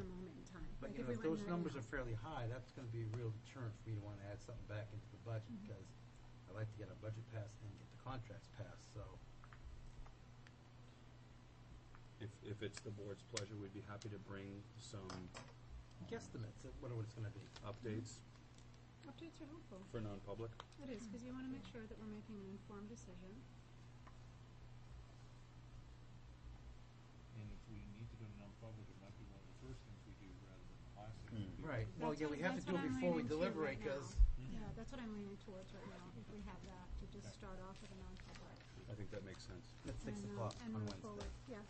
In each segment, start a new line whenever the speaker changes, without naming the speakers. um,
you
if
know,
we
if
went
those
right
numbers
now.
are fairly high, that's gonna be a real deterrent for me to wanna add something back into the budget,
Mhm.
because I like to get our budget passed and get the contracts passed, so.
If, if it's the board's pleasure, we'd be happy to bring some
Guesstimates of what it's gonna be.
updates
Updates are helpful.
for non-public.
It is, because you want to make sure that we're making an informed decision.
And if we need to go to non-public, it might be one of the first things we do rather than the last
Hmm.
thing. we do.
Right, well,
That's
yeah,
what-
we have to
that's
do
what
it
I'm
before we
leaning to
deliver
right
it, cause,
Mhm.
Yeah, that's what I'm leaning towards right now, if we have that, to just
Okay.
start off with a non-public.
I think that makes sense.
it's six
and, uh,
o'clock
and
on
move
Wednesday.
forward. Yes.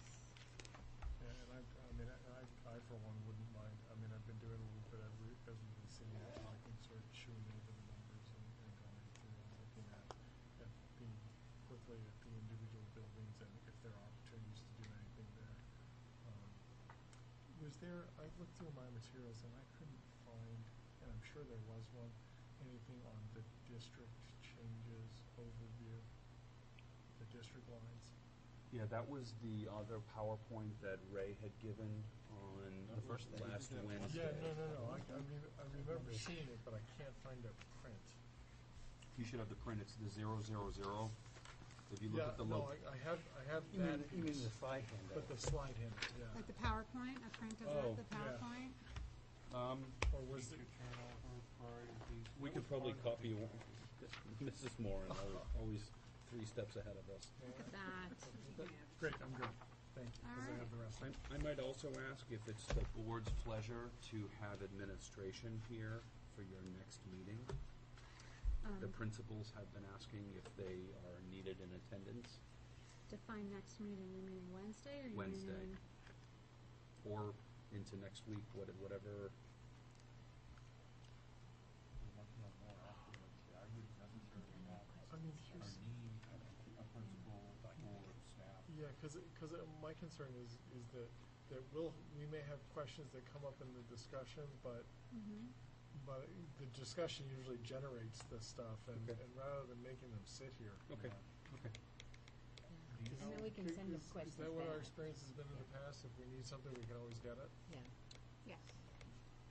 Yeah, and I, I mean, I, I, I for one wouldn't mind, I mean, I've been doing a little bit of, re- as we've been sitting here talking, sort of chewing over the numbers and, and going through and looking at, at the, quickly at the individual buildings and if there are opportunities to do anything there. Um, Was there, I looked through my materials and I couldn't find, and I'm sure there was one, anything on the district changes overview, the district lines?
Yeah, that was the other PowerPoint that Ray had given on the first,
Wednesday.
last
Yeah.
Wednesday.
Yeah, no, no, no, I, I re- I remember seeing it, but I can't find a print.
You should have the print, it's the zero, zero, zero. If you look
Yeah,
at the
no,
low,
I, I have, I have
You
that
mean, you mean
piece,
the slide handout?
but the slide in it, yeah.
Like the PowerPoint, a print of
Oh,
that, the
yeah.
PowerPoint?
um,
Or was
We
it,
could turn over priority of these.
we
That
could
was
probably
part of
copy
the-
one. Mrs. Moran, always, always three steps ahead of us.
yeah.
Look at that.
great, I'm good, thank you, because I
Alright.
have the rest.
I, I might also ask if it's the board's pleasure to have administration here for your next meeting. The
Um,
principals have been asking if they are needed in attendance
Define next meeting, you mean Wednesday or you mean?
Wednesday. or into next week, what- whatever.
We're working on more afterwards. Yeah, I wouldn't necessarily have
I mean,
a
here's,
need, a principal, or staff.
yeah, because, because my concern is, is that, that we'll, we may have questions that come up in the discussion, but
Mhm.
But the discussion usually generates this stuff, and,
Okay.
and rather than making them sit here.
Okay, okay.
Do you
Is-
And then we can
is-
send them
is-
questions
Is that what our
back.
experience has been in the past? If we need something, we can always get it?
Yeah,
Yes.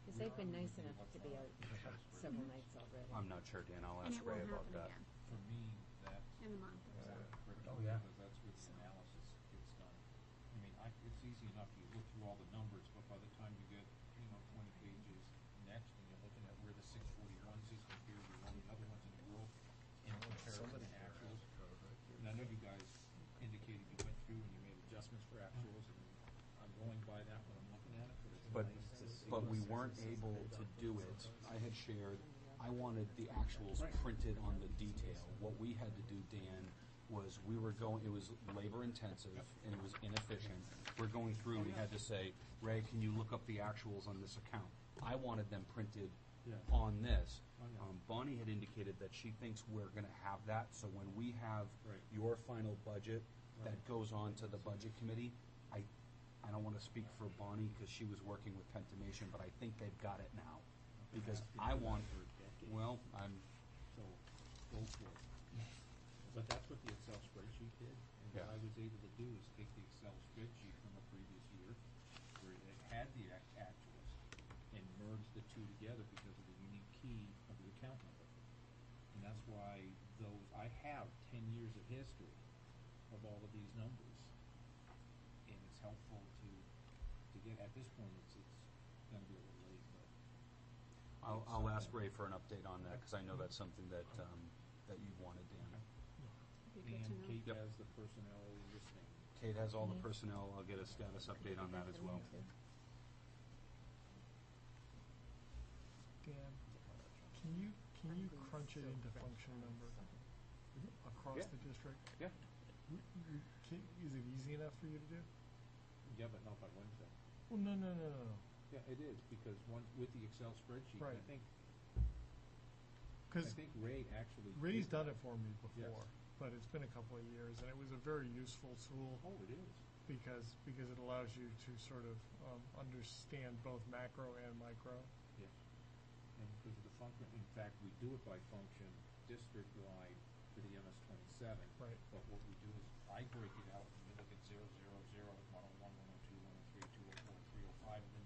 because they've been nice enough to be out several nights already.
I'm not sure, Dan, I'll
And
ask
it
Ray
won't happen
about that.
again
For me, that's
in a month or so.
critical,
Oh, yeah.
because that's where the analysis gets done. I mean, I, it's easy enough, you look through all the numbers, but by the time you get, you know, twenty pages next, and you're looking at where the six forty-ones is compared to all the other ones in the world, and compare it to the actuals. And I know you guys indicated you went through and you made adjustments for actuals, and I'm going by that when I'm looking at it,
But,
but it's nice to see.
but we weren't able to do it. I had shared, I wanted the actuals printed on the detail. What we had to do, Dan, was we were going, it was labor intensive and it was inefficient. We're going through, we had to say, Ray, can you look up the actuals on this account? I wanted them printed
Yeah.
on this.
Oh, yeah.
Um, Bonnie had indicated that she thinks we're gonna have that, so when we have
Right.
your final budget that
Right.
goes on to the budget committee, I, I don't wanna speak for Bonnie, cause she was working with Pentimation, but I think they've got it now. Because I want,
For a decade.
well, I'm,
So, go for it. But that's what the Excel spreadsheet did, and what
Yeah.
I was able to do is take the Excel spreadsheet from a previous year, where it had the act- actuals, and merge the two together because of the unique key of the account number. And that's why those, I have ten years of history of all of these numbers. And it's helpful to, to get, at this point, it's, it's gonna be a little late, but
I'll, I'll ask Ray for an update on that, cause I know that's something that, um, that you've wanted, Dan.
Be
And
good to know.
Kate
Yep.
has the personnel listening.
Kate has all the personnel, I'll get a status update on that as well.
Dan, can you, can you crunch it into function number across
Yeah.
the district?
Yeah.
W- w- can- Is it easy enough for you to do?
Yeah, but not by Wednesday.
Well, no, no, no, no, no.
Yeah, it is, because one, with the Excel spreadsheet, I
Right.
think, I
Because
think Ray actually.
Ray's
did
done it for me
Yes.
before, but it's been a couple of years, and it was a very useful tool.
Oh, it is.
because because it allows you to sort of um, understand both macro and micro.
And because of the function, in fact, we do it by function, district-wide for the MS twenty-seven.
Right.
But what we do is, I break it out, and we look at zero, zero, zero, one oh one, one oh two, one oh three, two oh four, three oh five, and then